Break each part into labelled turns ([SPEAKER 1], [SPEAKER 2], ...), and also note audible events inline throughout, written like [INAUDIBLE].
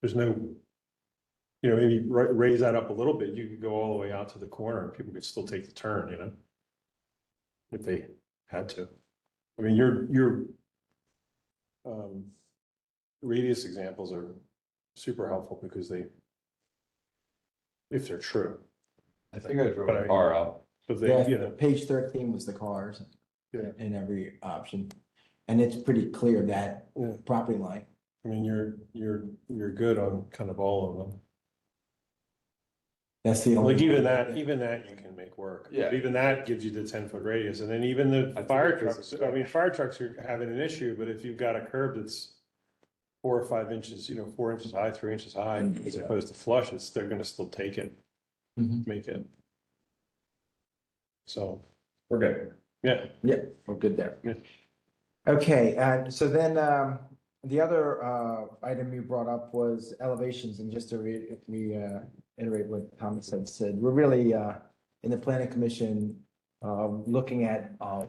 [SPEAKER 1] there's no. You know, maybe ra- raise that up a little bit, you could go all the way out to the corner and people could still take the turn, you know? If they had to. I mean, your, your. Um. Radius examples are super helpful because they. If they're true,
[SPEAKER 2] I think I drove
[SPEAKER 1] But I-
[SPEAKER 2] a car out.
[SPEAKER 1] but they, you
[SPEAKER 3] Yeah,
[SPEAKER 1] know,
[SPEAKER 3] page thirteen was the cars
[SPEAKER 1] Yeah.
[SPEAKER 3] in every option. And it's pretty clear that
[SPEAKER 1] Yeah.
[SPEAKER 3] property line.
[SPEAKER 1] I mean, you're, you're, you're good on kind of all of them.
[SPEAKER 3] That's the only.
[SPEAKER 1] Like even that, even that you can make work.
[SPEAKER 2] Yeah.
[SPEAKER 1] But Even that gives you the ten foot radius and then even the
[SPEAKER 2] think
[SPEAKER 1] fire
[SPEAKER 2] it is.
[SPEAKER 1] trucks, I mean, fire trucks are having an issue, but if you've got a curb that's. Four or five inches, you know, four inches high, three inches high,
[SPEAKER 2] Mm-hmm.
[SPEAKER 3] Mm,
[SPEAKER 1] as
[SPEAKER 3] yeah.
[SPEAKER 1] opposed to flush, it's, they're gonna still take it,
[SPEAKER 2] Mm-hmm.
[SPEAKER 3] Mhm.
[SPEAKER 1] make it. So,
[SPEAKER 2] We're good.
[SPEAKER 1] yeah,
[SPEAKER 3] We're good there.
[SPEAKER 1] Yeah.
[SPEAKER 3] Okay, and so then um, the other uh, item you brought up was elevations, and just to re- reiterate what Thomas had said, we're really uh, in the planning commission uh, looking at uh,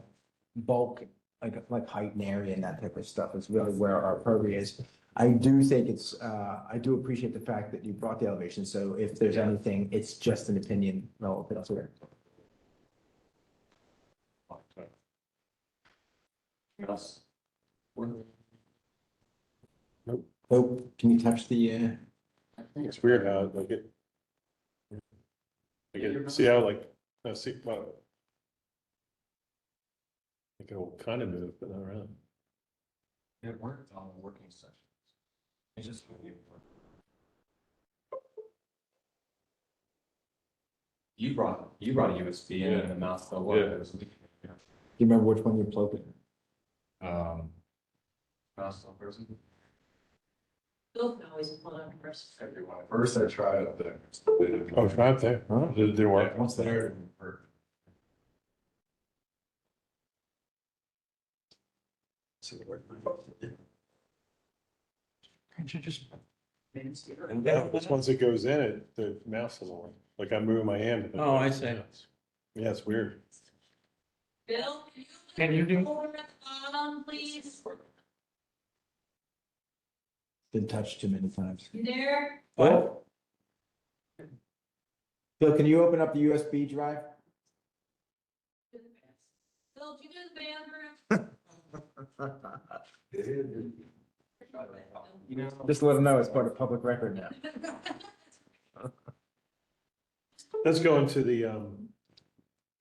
[SPEAKER 3] bulk, like, like height and area and that type of stuff is really where our purview is. I do think it's, uh, I do appreciate the fact that you brought the elevation, so if there's anything, it's just an opinion relative to it.
[SPEAKER 2] Yes.
[SPEAKER 3] Oh, can you touch the, uh,
[SPEAKER 1] it's weird how like it. Like it, see how like, I see, well. Like it'll kind of move, but not around.
[SPEAKER 2] It worked on the working sessions. It just. You brought, you brought a USB in and the mouse fell
[SPEAKER 1] Yeah.
[SPEAKER 2] over.
[SPEAKER 3] do you remember which one you plugged in?
[SPEAKER 2] Um. Mouse fell person.
[SPEAKER 4] Bill can always pull out first.
[SPEAKER 2] Everyone. First I tried it there.
[SPEAKER 1] Oh, it's not there.
[SPEAKER 3] Huh?
[SPEAKER 1] Did, did it work?
[SPEAKER 2] Once there. it worked.
[SPEAKER 3] So it worked.
[SPEAKER 1] No, it's once it goes in, it, the mouse doesn't work. Like I'm moving my hand. but-
[SPEAKER 5] Oh, I see.
[SPEAKER 1] Yeah, it's weird.
[SPEAKER 4] Bill, can you?
[SPEAKER 5] Can you do-
[SPEAKER 4] Over at the bottom, please.
[SPEAKER 3] Been touched too many times.
[SPEAKER 4] You there?
[SPEAKER 3] What? Bill, can you open up the USB drive?
[SPEAKER 4] Bill, do you do the
[SPEAKER 2] You know.
[SPEAKER 3] [LAUGHS] Just let them know it's part of public record now.
[SPEAKER 4] bathroom? [LAUGHS]
[SPEAKER 1] Let's go into the, um,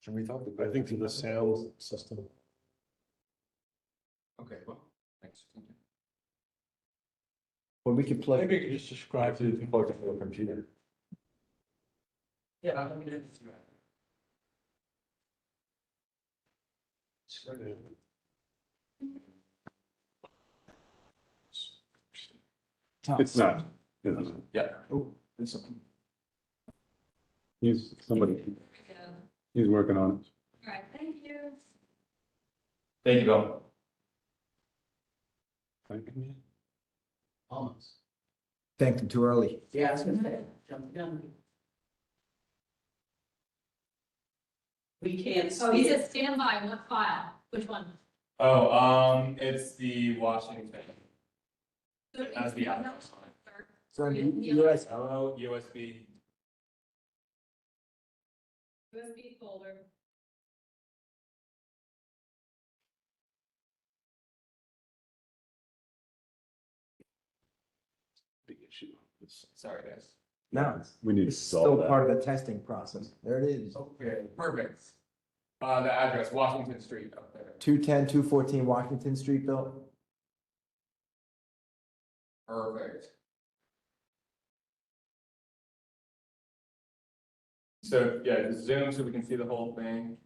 [SPEAKER 2] Can we talk?
[SPEAKER 1] I think to the sound system.
[SPEAKER 2] Okay, well, thanks.
[SPEAKER 3] Well, we could plug,
[SPEAKER 5] Maybe you could just describe it.
[SPEAKER 2] Plug it to the computer.
[SPEAKER 4] Yeah.
[SPEAKER 6] It's not. it isn't.
[SPEAKER 2] Yeah.
[SPEAKER 6] He's, somebody, he's working on it.
[SPEAKER 4] All right, thank you.
[SPEAKER 2] Thank you, Bill.
[SPEAKER 6] Thank you.
[SPEAKER 3] thank them too early.
[SPEAKER 4] Yeah, I was gonna say, jump the gun. We can't. Oh, he says standby, what file, which one?
[SPEAKER 2] Oh, um, it's the Washington. That's the app.
[SPEAKER 3] So
[SPEAKER 4] you- you
[SPEAKER 3] US,
[SPEAKER 2] Hello, USB.
[SPEAKER 4] USB folder.
[SPEAKER 6] Big issue. It's-
[SPEAKER 2] Sorry, guys.
[SPEAKER 3] no,
[SPEAKER 6] We need to
[SPEAKER 3] it's still
[SPEAKER 6] solve that.
[SPEAKER 3] part of the testing process. There it is.
[SPEAKER 2] Okay, perfect. Uh, the address, Washington Street up there.
[SPEAKER 3] 210, 214 Washington Street, Bill?
[SPEAKER 2] Perfect. So, yeah, just zoom so we can see the whole thing.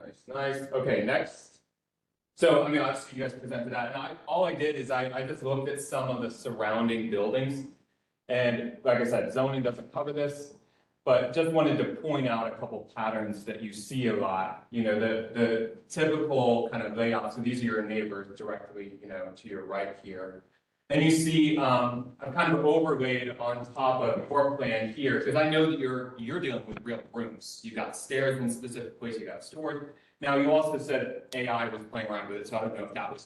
[SPEAKER 2] Nice, nice. Okay, next. So, I mean, obviously you guys presented that and I, all I did is I, I just looked at some of the surrounding buildings. And like I said, zoning doesn't cover this, but just wanted to point out a couple patterns that you see a lot. You know, the, the typical kind of layout, so these are your neighbors directly, you know, to your right here. And you see, um, I've kind of overlaid on top of your plan here, because I know that you're, you're dealing with real rooms. You've got stairs in specific places, you got storage. Now, you also said AI was playing around with it, so I don't know if that was